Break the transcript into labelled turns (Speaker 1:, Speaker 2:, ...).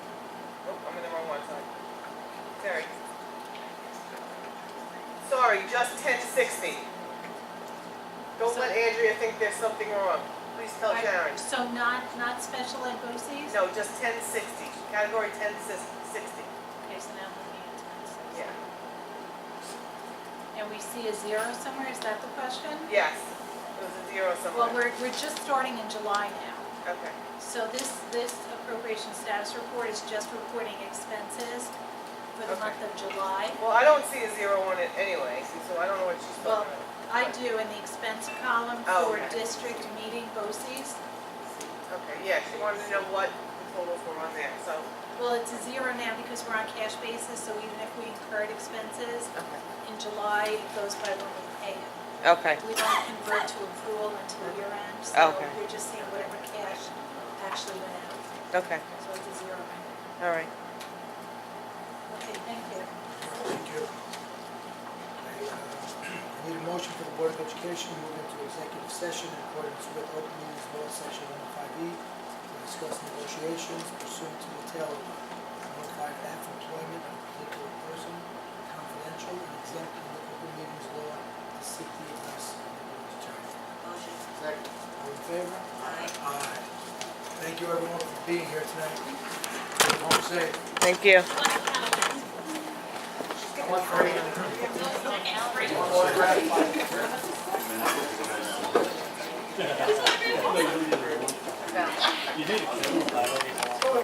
Speaker 1: Oh, sorry, just ten sixty. Don't let Andrea think there's something wrong. Please tell
Speaker 2: I-
Speaker 1: Sharon.
Speaker 2: So not, not special ed BOCES?
Speaker 1: Oh, No, just ten sixty, category ten sixty,
Speaker 2: Okay, so now we're looking
Speaker 1: yeah,
Speaker 2: at 10. And we see a zero somewhere, is that the question?
Speaker 1: yes. It was a zero
Speaker 2: Well,
Speaker 1: somewhere.
Speaker 2: we're, we're just starting in July now.
Speaker 1: Okay,
Speaker 2: So this, this appropriation status report is just reporting expenses for the
Speaker 1: Okay.
Speaker 2: month of July.
Speaker 1: well, I don't see a zero on it anyway, so I don't know what she's
Speaker 2: Well,
Speaker 1: talking about.
Speaker 2: I do in the expense column
Speaker 1: Oh,
Speaker 2: for
Speaker 1: okay.
Speaker 2: district meeting BOCES.
Speaker 1: Okay, yeah, she wanted to know what the totals were on there, so.
Speaker 2: Well, it's a zero now because we're on cash basis, so even if we incurred expenses in July, it goes by when we pay it.
Speaker 1: Okay,
Speaker 2: We don't convert to accrual until year end, so
Speaker 1: Okay.
Speaker 2: we're just seeing whatever cash actually went out.
Speaker 1: okay,
Speaker 2: So it's a zero. amount.
Speaker 1: all right.
Speaker 2: Okay, thank you.
Speaker 3: Thank you. I, uh, I need a motion for the Board of Education to move into executive session in accordance with open meetings law section one oh five E to discuss negotiations pursuant to the tail of one oh five F employment of a particular person, confidential and exempt under open meetings law to seek the advice of the board's attorney.
Speaker 4: Motion.
Speaker 3: Second. All in favor?
Speaker 4: Aye.
Speaker 3: Aye. Thank you everyone for being here tonight. Home safe.
Speaker 1: Thank you.
Speaker 5: You did.